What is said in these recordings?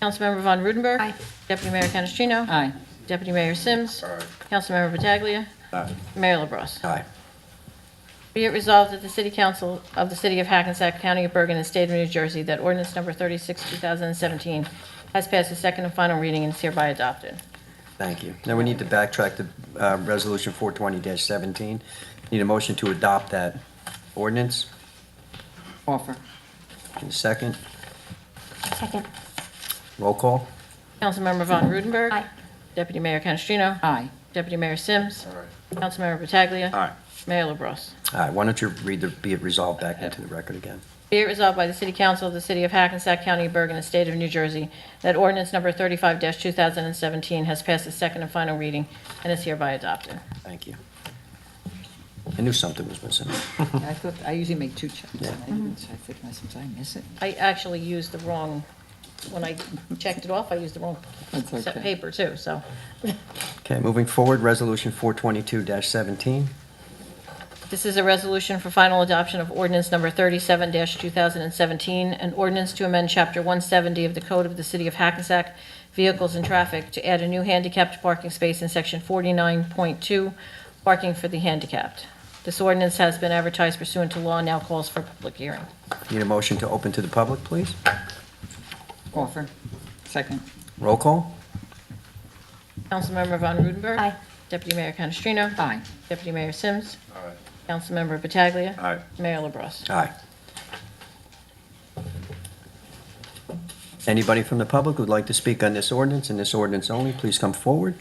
Councilmember Von Rudenberg. Aye. Deputy Mayor Canestrino. Aye. Deputy Mayor Sims. Councilmember Pataglia. Aye. Mayor LaBrus. Aye. Be it resolved that the City Council of the City of Hackensack County of Bergen and State of New Jersey that ordinance number 36, 2017 has passed its second and final reading and is hereby adopted. Thank you. Now we need to backtrack to uh, Resolution 420-17. Need a motion to adopt that ordinance Offer. in a second. Second. Roll call. Councilmember Von Rudenberg. Aye. Deputy Mayor Canestrino. Aye. Deputy Mayor Sims. Councilmember Pataglia. Mayor LaBrus. Aye. Why don't you read the, be it resolved back into the record again? Be it resolved by the City Council of the City of Hackensack County, Bergen, and State of New Jersey that ordinance number 35-2017 has passed its second and final reading and is hereby adopted. Thank you. I knew something was missing. Yeah, I thought, I usually make two checks. and Hmm. Yeah. I didn't, so I think to myself, did I miss it? I actually used the wrong, when I checked it off, I used the wrong That's set okay. paper, too, so. Okay, moving forward, Resolution 422-17. This is a resolution for final adoption of ordinance number 37-2017, an ordinance to amend Chapter 170 of the Code of the City of Hackensack Vehicles and Traffic to add a new handicapped parking space in Section 49.2, parking for the handicapped. This ordinance has been advertised pursuant to law and now calls for public hearing. Need a motion to open to the public, please? Offer. Second. Roll call. Councilmember Von Rudenberg. Aye. Deputy Mayor Canestrino. Aye. Deputy Mayor Sims. Councilmember Pataglia. Aye. Mayor LaBrus. Aye. Anybody from the public who'd like to speak on this ordinance and this ordinance only, please come forward.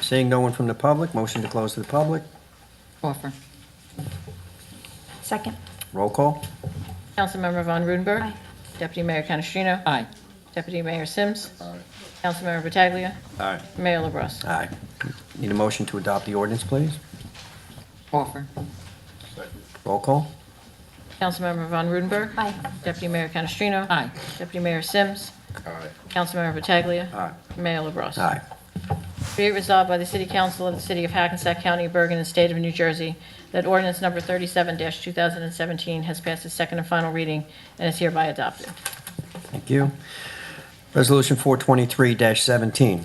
Seeing no one from the public, motion to close to the public. Offer. Second. Roll call. Councilmember Von Rudenberg. Aye. Deputy Mayor Canestrino. Aye. Deputy Mayor Sims. Councilmember Pataglia. Aye. Mayor LaBrus. Aye. Need a motion to adopt the ordinance, please? Offer. Roll call. Councilmember Von Rudenberg. Aye. Deputy Mayor Canestrino. Aye. Deputy Mayor Sims. Councilmember Pataglia. Aye. Mayor LaBrus. Aye. Be it resolved by the City Council of the City of Hackensack County, Bergen, and State of New Jersey that ordinance number 37-2017 has passed its second and final reading and is hereby adopted. Thank you. Resolution 423-17.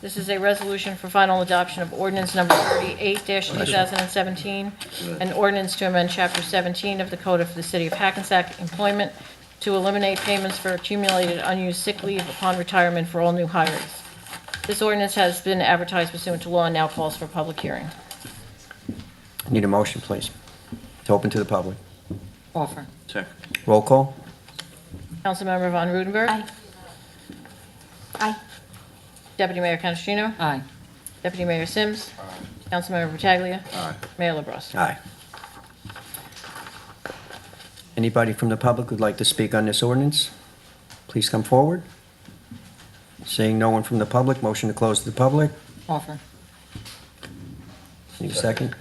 This is a resolution for final adoption of ordinance number 38-2017, an ordinance to amend Chapter 17 of the Code of the City of Hackensack Employment to eliminate payments for accumulated unused sick leave upon retirement for all new hires. This ordinance has been advertised pursuant to law and now calls for public hearing. Need a motion, please, to open to the public. Offer. Roll call. Councilmember Von Rudenberg. Aye. Aye. Deputy Mayor Canestrino. Aye. Deputy Mayor Sims. Councilmember Pataglia. Mayor LaBrus. Aye. Anybody from the public who'd like to speak on this ordinance, please come forward. Seeing no one from the public, motion to close to the public. Offer. Need a second?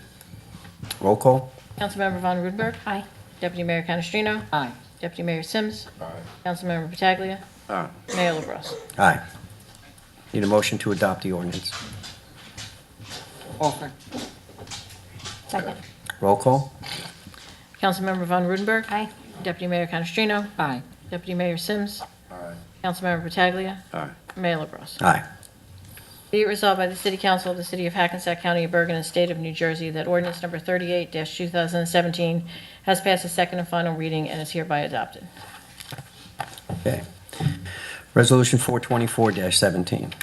Roll call. Councilmember Von Rudenberg. Aye. Deputy Mayor Canestrino. Aye. Deputy Mayor Sims. Councilmember Pataglia. Mayor LaBrus. Aye. Need a motion to adopt the ordinance. Offer. Second. Roll call. Councilmember Von Rudenberg. Aye. Deputy Mayor Canestrino. Aye. Deputy Mayor Sims. Councilmember Pataglia. Mayor LaBrus. Aye. Be it resolved by the City Council of the City of Hackensack County of Bergen and State of New Jersey that ordinance number 38-2017 has passed its second and final reading and is hereby adopted. Okay. Resolution 424-17.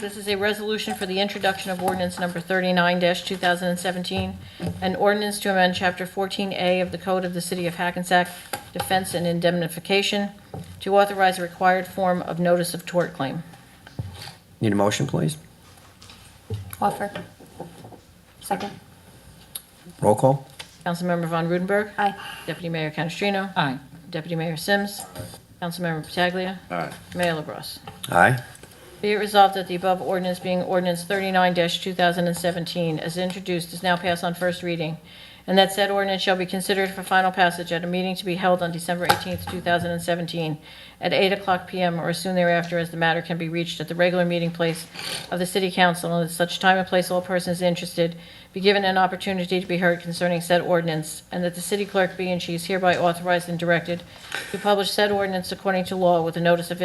This is a resolution for the introduction of ordinance number 39-2017, an ordinance to amend Chapter 14A of the Code of the City of Hackensack Defense and Indemnification to authorize a required form of notice of tort claim. Need a motion, please? Offer. Second. Roll call. Councilmember Von Rudenberg. Aye. Deputy Mayor Canestrino. Aye. Deputy Mayor Sims. Councilmember Pataglia. Mayor LaBrus. Aye. Be it resolved that the above ordinance being ordinance 39-2017 as introduced is now passed on first reading, and that said ordinance shall be considered for final passage at a meeting to be held on December 18th, 2017, at 8 o'clock PM or as soon thereafter as the matter can be reached at the regular meeting place of the city council, and at such time and place all persons interested be given an opportunity to be heard concerning said ordinance, and that the city clerk be and she is hereby authorized and directed to publish said ordinance according to law with a notice of